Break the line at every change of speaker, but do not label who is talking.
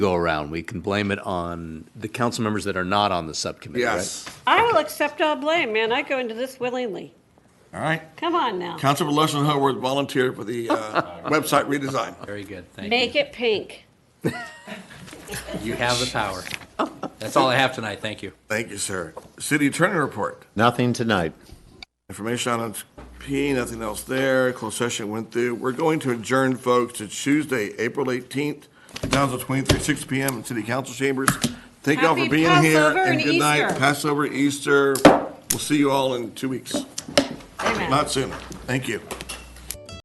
go around. We can blame it on the council members that are not on the subcommittee, right?
Yes.
I will accept all blame, man. I go into this willingly.
All right.
Come on now.
Councilman Lushan Howard volunteered for the uh, website redesign.
Very good, thank you.
Make it pink.
You have the power. That's all I have tonight, thank you.
Thank you, sir. City Attorney Report.
Nothing tonight.
Information on P, nothing else there. Closed session went through. We're going to adjourn, folks, to Tuesday, April 18th, 2023, 6 p.m. in City Council Chambers. Thank y'all for
Happy
being here.
Passover and
good night.
Easter.
Passover, Easter. We'll see you all in two weeks,
Amen.
not sooner. Thank you.